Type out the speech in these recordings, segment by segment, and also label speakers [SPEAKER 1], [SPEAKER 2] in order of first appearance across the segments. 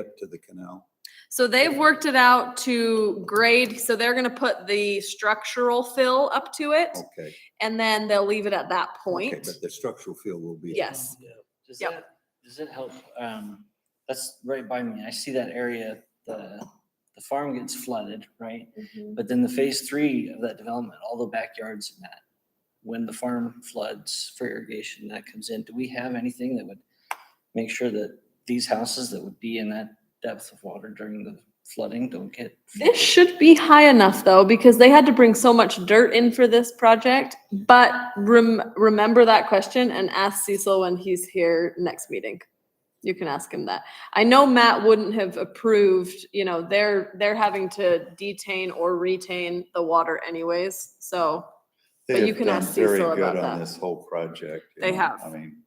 [SPEAKER 1] up to the canal.
[SPEAKER 2] So they've worked it out to grade, so they're gonna put the structural fill up to it
[SPEAKER 1] Okay.
[SPEAKER 2] and then they'll leave it at that
[SPEAKER 1] Oh. Okay,
[SPEAKER 2] point.
[SPEAKER 1] But the structural field will be.
[SPEAKER 2] Yes.
[SPEAKER 3] Yeah. Does
[SPEAKER 2] Yep.
[SPEAKER 3] that, does it help, um, that's right by me, I see that area, the, the farm gets flooded, right?
[SPEAKER 2] Mm-hmm.
[SPEAKER 3] But then the phase three of that development, all the backyards and that, when the farm floods for irrigation, that comes in, do we have anything that would make sure that these houses that would be in that depth of water during the flooding don't get?
[SPEAKER 2] This should be high enough though, because they had to bring so much dirt in for this project. But rem- remember that question and ask Cecil when he's here next meeting. You can ask him that. I know Matt wouldn't have approved, you know, they're, they're having to detain or retain the water anyways, so.
[SPEAKER 4] They
[SPEAKER 2] But you
[SPEAKER 4] have
[SPEAKER 2] can
[SPEAKER 4] done
[SPEAKER 2] ask
[SPEAKER 4] very
[SPEAKER 2] Cecil
[SPEAKER 4] good
[SPEAKER 2] about
[SPEAKER 4] on
[SPEAKER 2] that.
[SPEAKER 4] This whole project. you
[SPEAKER 2] They
[SPEAKER 4] know,
[SPEAKER 2] have.
[SPEAKER 4] I mean,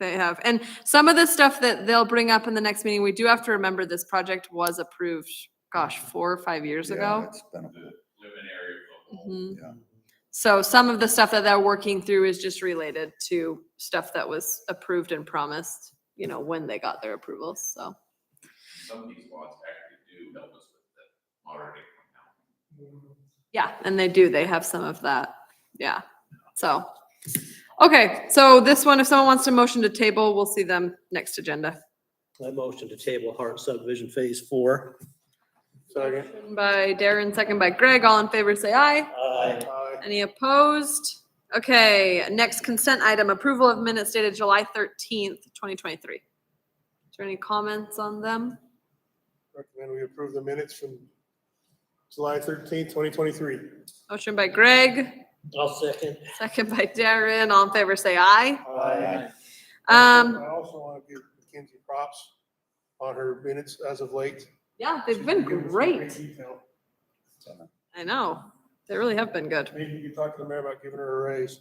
[SPEAKER 2] They have. And some of the stuff that they'll bring up in the next meeting, we do have to remember this project was approved, gosh, four or five years
[SPEAKER 1] Yeah,
[SPEAKER 2] ago.
[SPEAKER 1] it's been a-
[SPEAKER 2] Mhm.
[SPEAKER 1] yeah.
[SPEAKER 2] So some of the stuff that they're working through is just related to stuff that was approved and promised, you know, when they got their approvals, so.
[SPEAKER 5] some of these laws actually do help us with the moderating now.
[SPEAKER 2] Yeah, and they do, they have some of that, yeah, so. Okay, so this one, if someone wants to motion to table, we'll see them next agenda.
[SPEAKER 6] I motion to table Hart subdivision phase four. Second.
[SPEAKER 2] Motion By Darren, second by Greg, all in favor, say aye.
[SPEAKER 6] Aye.
[SPEAKER 2] Any opposed? Okay, next consent item, approval of minutes dated July thirteenth, twenty twenty-three. Is there any comments on them?
[SPEAKER 7] Recommend we approve the minutes from July thirteenth, twenty twenty-three.
[SPEAKER 2] Motion by Greg,
[SPEAKER 6] I'll second.
[SPEAKER 2] second by Darren, all in favor, say aye.
[SPEAKER 6] Aye.
[SPEAKER 2] Um,
[SPEAKER 7] I also want to give Mackenzie props on her minutes as of late.
[SPEAKER 2] yeah, they've been
[SPEAKER 7] She's given us some
[SPEAKER 2] great.
[SPEAKER 7] detail.
[SPEAKER 2] I know, they really have been good.
[SPEAKER 7] Maybe you could talk to the mayor about giving her a raise.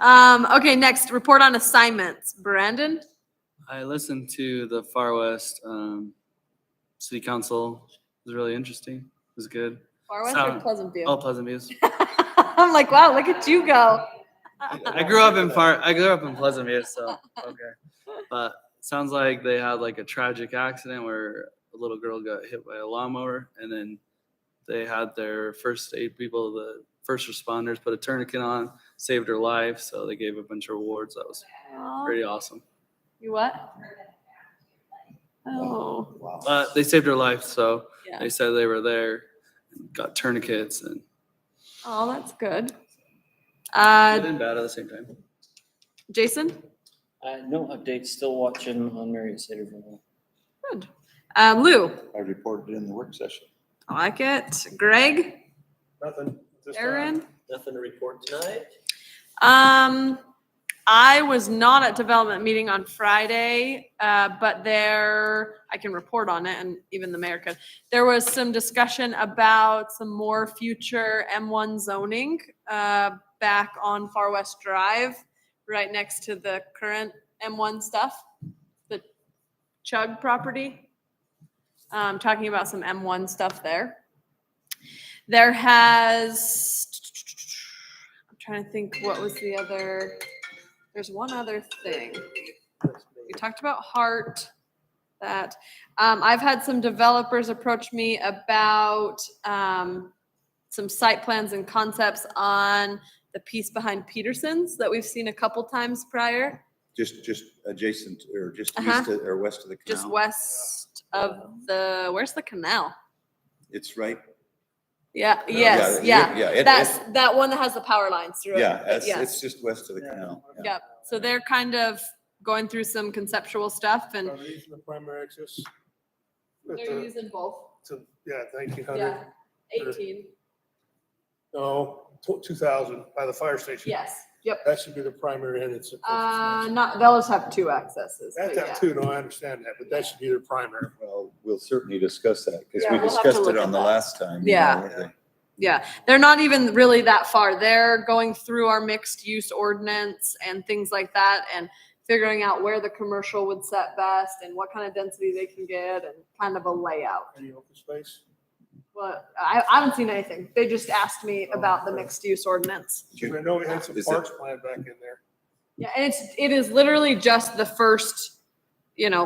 [SPEAKER 2] Um, okay, next, report on assignments. Brandon?
[SPEAKER 8] I listened to the Far West um, City Council. It was really interesting. It was good.
[SPEAKER 2] Far
[SPEAKER 8] West or Sound-
[SPEAKER 2] Pleasant
[SPEAKER 8] All Pleasant Views.
[SPEAKER 2] I'm like, wow, look at you go.
[SPEAKER 8] I I grew up in Far. I grew up in Pleasant View, so okay. But sounds like they had like a tragic accident where a little girl got hit by a lawnmower, and then they had their first aid people, the first responders, put a tourniquet on, saved her life. So they gave a bunch of awards. That was
[SPEAKER 2] Oh.
[SPEAKER 8] pretty awesome.
[SPEAKER 2] You what? Oh,
[SPEAKER 1] Wow.
[SPEAKER 8] But they saved her life, so
[SPEAKER 2] Yeah.
[SPEAKER 8] they said they were there, got tourniquets, and
[SPEAKER 2] oh, that's good. Uh,
[SPEAKER 8] good and bad at the same time.
[SPEAKER 2] Jason?
[SPEAKER 3] Uh, no updates, still watching on Marriott Centerville.
[SPEAKER 2] Good. Uh, Lou?
[SPEAKER 1] I reported in the work session.
[SPEAKER 2] I like it. Greg?
[SPEAKER 7] Nothing. at this time.
[SPEAKER 2] Aaron?
[SPEAKER 6] Nothing to report tonight.
[SPEAKER 2] Um, I was not at development meeting on Friday, uh, but there, I can report on it and even the mayor could. There was some discussion about some more future M1 zoning, uh, back on Far West Drive, right next to the current M1 stuff, the Chug property. Um, talking about some M1 stuff there. There has, I'm trying to think what was the other. There's one other thing. We talked about heart. That um, I've had some developers approach me about um, some site plans and concepts on the piece behind Peterson's that we've seen a couple times prior,
[SPEAKER 1] Just, just adjacent to- or just
[SPEAKER 2] Uh-huh.
[SPEAKER 1] east of, or west of the
[SPEAKER 2] just
[SPEAKER 1] canal.
[SPEAKER 2] west of the where's the canal?
[SPEAKER 1] It's right.
[SPEAKER 2] Yeah. Yes.
[SPEAKER 1] Oh, it-
[SPEAKER 2] Yeah.
[SPEAKER 1] Yeah. it- it-
[SPEAKER 2] That's that one that has the power lines through it.
[SPEAKER 1] Yeah, it's,
[SPEAKER 2] yes.
[SPEAKER 1] it's just west of the canal. yeah.
[SPEAKER 2] Yep. So they're kind of going through some conceptual stuff and
[SPEAKER 7] Are they using the primary access? At
[SPEAKER 2] They're
[SPEAKER 7] the-
[SPEAKER 2] using both.
[SPEAKER 7] to- Yeah, nineteen
[SPEAKER 2] Yeah.
[SPEAKER 7] hundred,
[SPEAKER 2] 18.
[SPEAKER 7] no, two thousand by the fire station.
[SPEAKER 2] Yes. Yep.
[SPEAKER 7] That should be the primary and it's.
[SPEAKER 2] Uh, not, they'll just have two accesses.
[SPEAKER 7] That's
[SPEAKER 2] but yeah.
[SPEAKER 7] that too, no, I understand that, but that should be their primary.
[SPEAKER 1] Well, we'll certainly discuss that because
[SPEAKER 2] Yeah,
[SPEAKER 1] we
[SPEAKER 2] we'll have to
[SPEAKER 1] discussed
[SPEAKER 2] look
[SPEAKER 1] it
[SPEAKER 2] at
[SPEAKER 1] on the
[SPEAKER 2] that.
[SPEAKER 1] last time. you
[SPEAKER 2] Yeah.
[SPEAKER 1] know, the-
[SPEAKER 2] Yeah, they're not even really that far. They're going through our mixed use ordinance and things like that and figuring out where the commercial would set best and what kind of density they can get and kind of a layout.
[SPEAKER 7] Any open space?
[SPEAKER 2] But I, I haven't seen anything. They just asked me about the
[SPEAKER 7] Okay.
[SPEAKER 2] mixed use ordinance.
[SPEAKER 7] I know we had some
[SPEAKER 1] Is it-
[SPEAKER 7] parks planned back in there.
[SPEAKER 2] Yeah, and it's, it is literally just the first, you know,